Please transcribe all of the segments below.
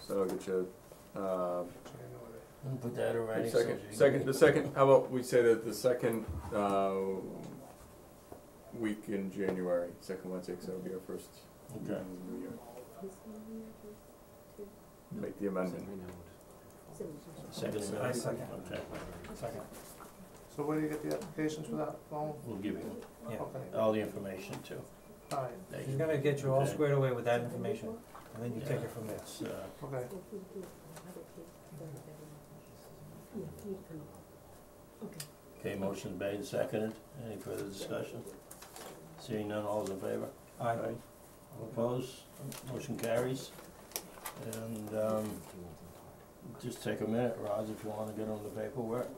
so I'll get you, uh, We'll Put that in writing. so Second, she can second, get- the second, how about we say that the second, uh, week in January, second Wednesday, so it'll be our first. Okay. New Year. Make the amendment. Second. I second. Okay, Second. So where do you get the applications for that phone? we'll give you Yeah. Okay, all the information too. all right, Thank He's you. gonna get you all Okay. squared away with that information, and then you take it from there. It's, uh, okay. Okay, motion made, and seconded. Any further discussion? Seeing none, all's in favor? Aye. All opposed? Motion carries. And, um, just take a minute, Roz, if you wanna get on the paperwork.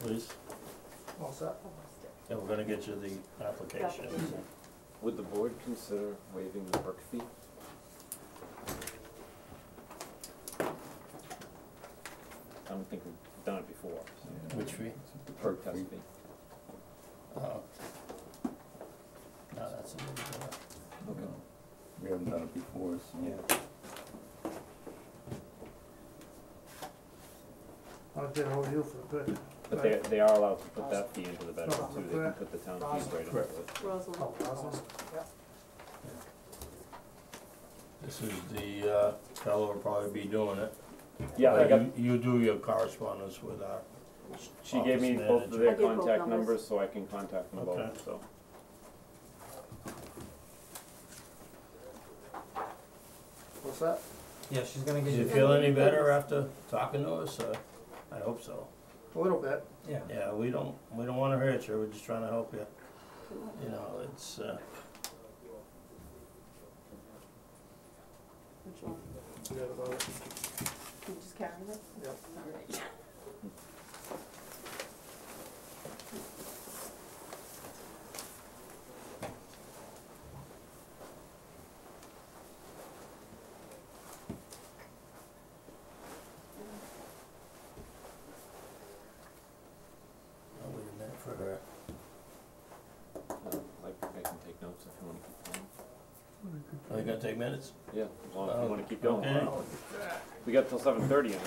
Please, All set? and we're gonna get you the application. Would the board consider waiving the perk fee? I don't think we've done it before, so Which fee? the perk test fee. Oh. No, that's a little bit. of- Okay. We haven't done it before, so. Yeah. I did hold you for good. But they, they are allowed to put that fee into the bedroom No, too, they can put the town fees right into Correct. it. Oh, Roslin? This is the, uh, fellow who'll probably be doing it. Yeah, I But got, you- You do your correspondence with our, she gave me Office both of manager. their I did both contact numbers. numbers, so I can contact them Okay. both, so. What's that? Yeah, she's gonna do get you you, feel any better after talking to us? Uh, I hope so. A little bit. yeah, Yeah, we don't, we don't wanna hurt you, we're just trying to help you. You know, it's, uh, Forget about it. You just carrying it? Yep. All right. I'll wait a minute for her. Um, Like, I can take notes if you wanna keep going. Are you gonna take minutes? Yeah, as long as Oh, you wanna keep going. okay. Wow. We got till seven thirty, and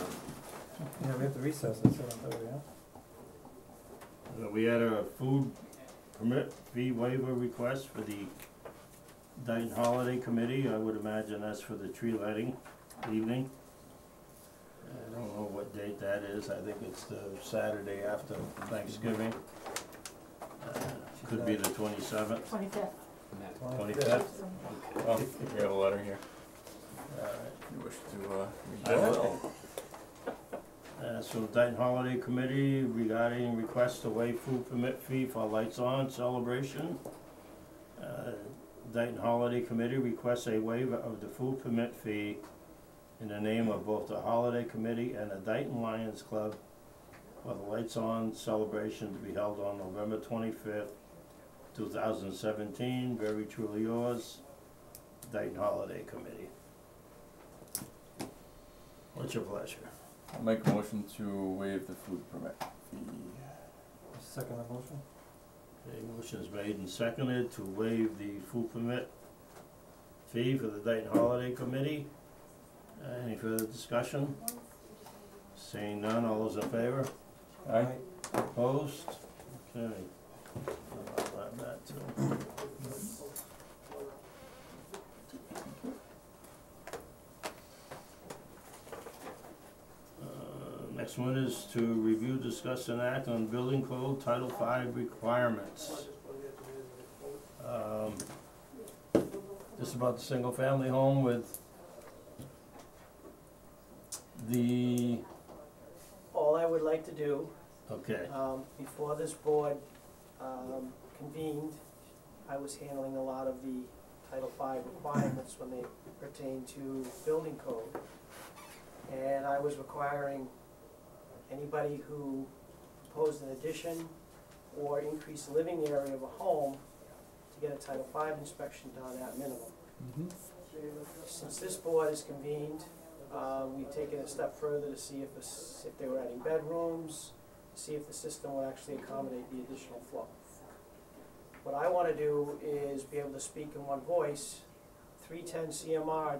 yeah, we have to recess at seven thirty, huh? Uh, We had a food permit fee waiver request for the Dayton Holiday Committee, I would imagine that's for the tree lighting evening. I don't know what date that is, I think it's the Saturday after Thanksgiving. Uh, Could be the twenty-seventh, Twenty-fifth. twenty-fifth. Oh, we have a letter here. You wish to, uh, read I that? will. Uh, so Dayton Holiday Committee regarding request to waive food permit fee for lights on celebration. Uh, Dayton Holiday Committee requests a waiver of the food permit fee in the name of both the Holiday Committee and the Dayton Lions Club for the lights on celebration to be held on November twenty-fifth, two thousand seventeen. Very truly yours, Dayton Holiday Committee. What's your pleasure? I'll Make a motion to waive the food permit fee. Second the motion? Okay, motion's made and seconded to waive the food permit fee for the Dayton Holiday Committee. Uh, Any further discussion? Seeing none, all those in favor? Aye. Opposed? Okay. I'll add that too. Uh, Next one is to review, discuss, and act on building code Title V requirements. Um, This is about the single-family home with the, All I would like to do, okay, um, before this board, um, convened, I was handling a lot of the Title V requirements when they pertain to building code. And I was requiring anybody who proposed an addition or increased living area of a home to get a Title V inspection done at minimum. Since this board is convened, uh, we've taken a step further to see if this, if they were adding bedrooms, see if the system will actually accommodate the additional flow. What I wanna do is be able to speak in one voice. Three ten CMR